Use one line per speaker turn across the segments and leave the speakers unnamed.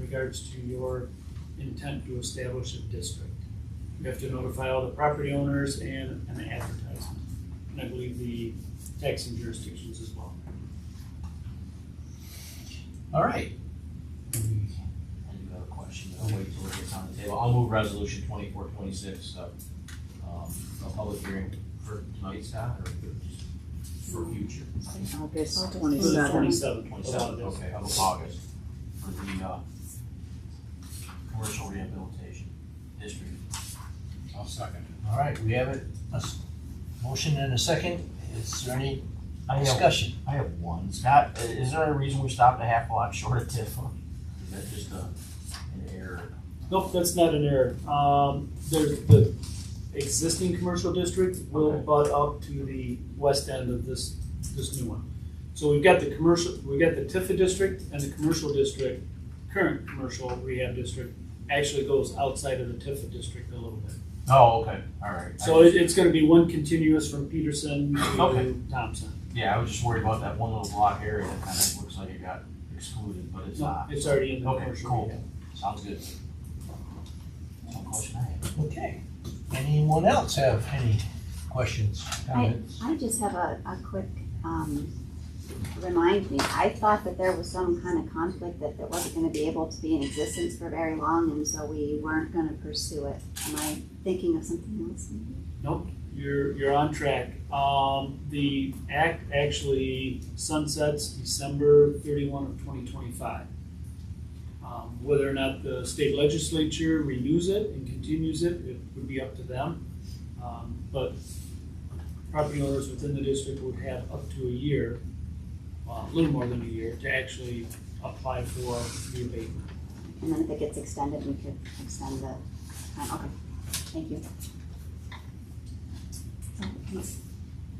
regards to your intent to establish a district. You have to notify all the property owners and an advertisement, and I believe the taxing jurisdictions as well.
All right. I do have a question, I'll wait till it gets on the table. I'll move resolution twenty-four, twenty-six, uh, um, a public hearing for tonight, Scott, or just for future?
August
For the
twenty-seventh.
twenty-seventh,
Twenty-seven, okay, of August, for the, uh, commercial rehabilitation district.
I'll second
All right, we have it, a s- motion and a second, is there any
I have,
discussion?
I have one. Scott, i- is there a reason we stopped a half a lot short of TIF?
Is that just a, an error?
Nope, that's not an error. Um, there's the existing commercial district will
Okay.
butt up to the west end of this, this new one. So we've got the commercial, we've got the Tifa district and the commercial district, current commercial rehab district actually goes outside of the Tifa district a little bit.
Oh, okay, all right.
So it, it's gonna be one continuous from Peterson
Okay.
to Thompson.
Yeah, I was just worried about that one little block area that kind of looks like it got excluded, but it's
No,
not.
it's already in the
Okay,
commercial
cool.
rehab.
Sounds good. One question I have.
Okay, anyone else have any questions, comments?
I just have a, a quick, um, remind me, I thought that there was some kind of conflict that it wasn't gonna be able to be in existence for very long, and so we weren't gonna pursue it. Am I thinking of something else?
You're, you're on track. Um, the act actually sunsets December thirty-one of twenty twenty-five. Um, whether or not the state legislature renews it and continues it, it would be up to them. Um, but property owners within the district would have up to a year, uh, a little more than a year, to actually apply for the abatement.
And then if it gets extended, we could extend the, time. okay, thank you.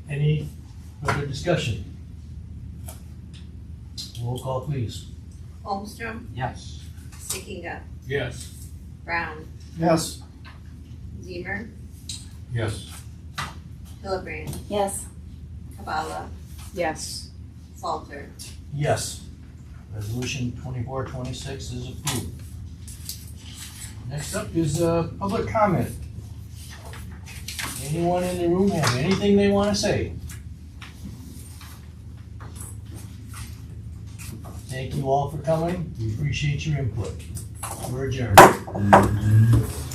Any further discussion? Roll call, please.
Holmstrom,
Yes.
Stickinga,
it. Yes.
Brown,
Yes.
Zemer,
Yes.
Hillebrand,
Yes,
Kabala,
Yes.
Salter.
Yes. Resolution twenty-four, twenty-six is approved. Next up is, uh, public comment. Anyone in the room have anything they wanna say? Thank you all for coming, we appreciate your input. We're adjourned.